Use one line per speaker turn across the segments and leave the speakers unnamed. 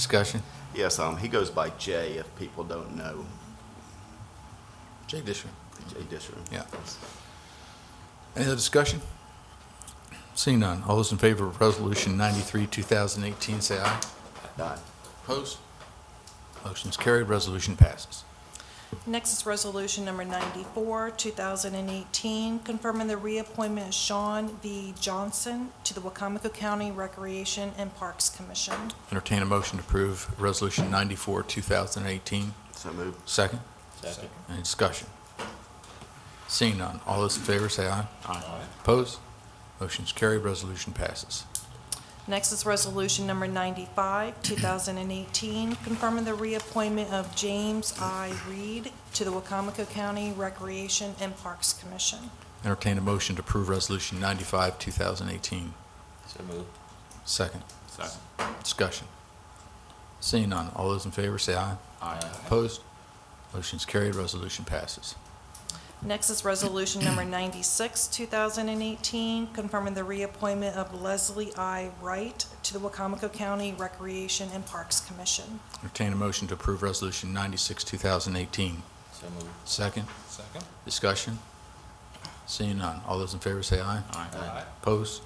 Discussion?
Yes, um, he goes by Jay if people don't know
Jay Disher.
Jay Disher.
Yeah. Any other discussion? Seeing none, all those in favor of Resolution 93, 2018, say aye.
Aye.
Opposed? Motion's carried, resolution passes.
Next is Resolution Number 94, 2018, confirming the reappointment of Sean V. Johnson to the Wacomico County Recreation and Parks Commission.
Entertain a motion to approve Resolution 94, 2018.
So moved.
Second? Second. Any discussion? Seeing none, all those in favor, say aye. Aye. Opposed? Motion's carried, resolution passes.
Next is Resolution Number 95, 2018, confirming the reappointment of James I. Reed to the Wacomico County Recreation and Parks Commission.
Entertain a motion to approve Resolution 95, 2018.
So moved.
Second?
Second.
Discussion. Seeing none, all those in favor say aye.
Aye.
Opposed? Motion's carried, resolution passes.
Next is Resolution Number 96, 2018, confirming the reappointment of Leslie I. Wright to the Wacomico County Recreation and Parks Commission.
Entertain a motion to approve Resolution 96, 2018.
So moved.
Second,
Second.
discussion. Seeing none, all those in favor say aye.
Aye.
Opposed?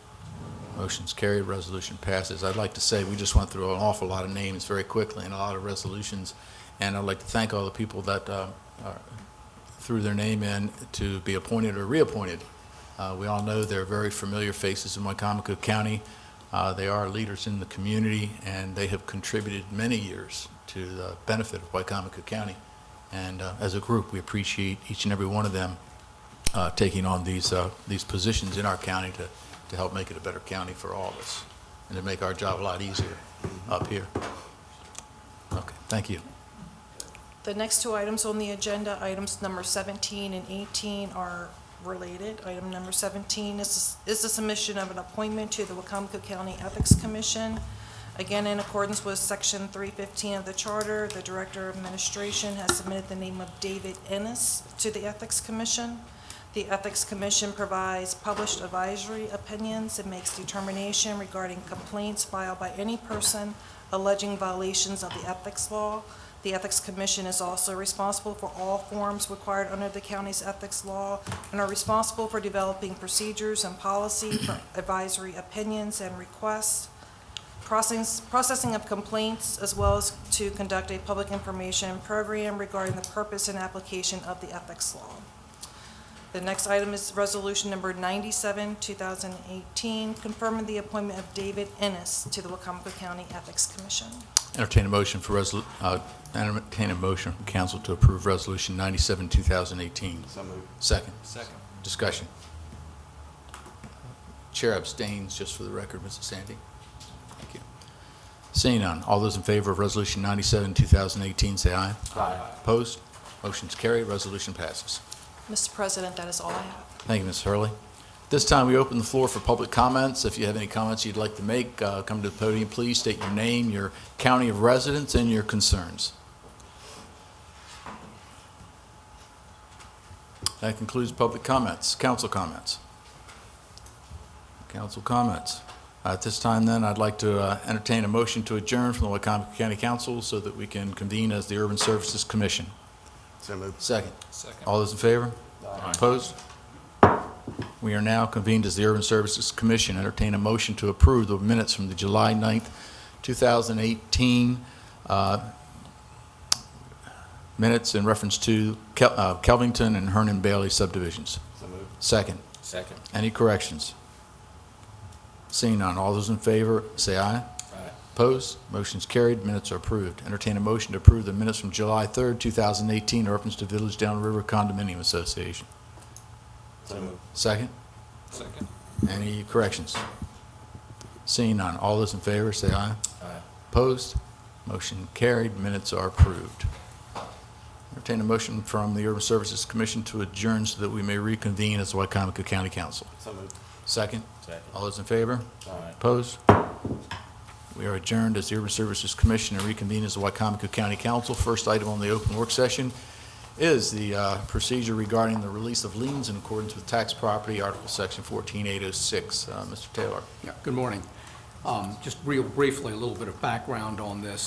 Motion's carried, resolution passes. I'd like to say, we just went through an awful lot of names very quickly and a lot of resolutions, and I'd like to thank all the people that uh, are- threw their name in to be appointed or reappointed. Uh, We all know they're very familiar faces in Wycomico County. Uh, They are leaders in the community, and they have contributed many years to the benefit of Wycomico County. And uh, as a group, we appreciate each and every one of them uh, taking on these, uh, these positions in our county to, to help make it a better county for all of us and to make our job a lot easier up here. Okay, thank you.
The next two items on the agenda, items number 17 and 18, are related. Item number 17 is is the submission of an appointment to the Wacomico County Ethics Commission. Again, in accordance with Section 315 of the Charter, the Director of Administration has submitted the name of David Ennis to the Ethics Commission. The Ethics Commission provides published advisory opinions and makes determination regarding complaints filed by any person alleging violations of the ethics law. The Ethics Commission is also responsible for all forms required under the county's ethics law and are responsible for developing procedures and policy for advisory opinions and requests, processing processing of complaints, as well as to conduct a public information program regarding the purpose and application of the ethics law. The next item is Resolution Number 97, 2018, confirming the appointment of David Ennis to the Wacomico County Ethics Commission.
Entertain a motion for resol, uh, entertain a motion from council to approve Resolution 97, 2018.
So moved.
Second,
Second.
discussion. Chair abstains, just for the record, Mrs. Sandy. Thank you. Seeing none, all those in favor of Resolution 97, 2018, say aye.
Aye.
Opposed? Motion's carried, resolution passes.
Mr. President, that is all I have.
Thank you, Ms. Hurley. At This time, we open the floor for public comments. If you have any comments you'd like to make, uh, come to the podium, please state your name, your county of residence, and your concerns. That concludes public comments. Council comments. Council comments. Uh, At this time, then, I'd like to uh, entertain a motion to adjourn from the Wycomico County Council so that we can convene as the Urban Services Commission.
So moved.
Second.
Second.
All those in favor?
Aye.
Opposed? We are now convened as the Urban Services Commission. Entertain a motion to approve the minutes from the July 9th, 2018, uh, minutes in reference to Kel- uh, Kelvington and Hernan Bailey subdivisions.
So moved.
Second.
Second.
Any corrections? Seeing none, all those in favor, say aye.
Aye.
Opposed? Motion's carried. Minutes are approved. Entertain a motion to approve the minutes from July 3rd, 2018, in reference to Village Downriver Condominium Association.
So moved.
Second?
Second.
Any corrections? Seeing none, all those in favor, say aye.
Aye.
Opposed? Motion carried, minutes are approved. Entertain a motion from the Urban Services Commission to adjourn so that we may reconvene as the Wycomico County Council.
So moved.
Second?
Second.
All those in favor?
Aye.
Opposed? We are adjourned as the Urban Services Commission and reconvene as the Wycomico County Council. First item on the open work session is the uh, procedure regarding the release of liens in accordance with tax property, Article Section 14806. Uh, Mr. Taylor.
Yeah, good morning. Um, Just real briefly, a little bit of background on this.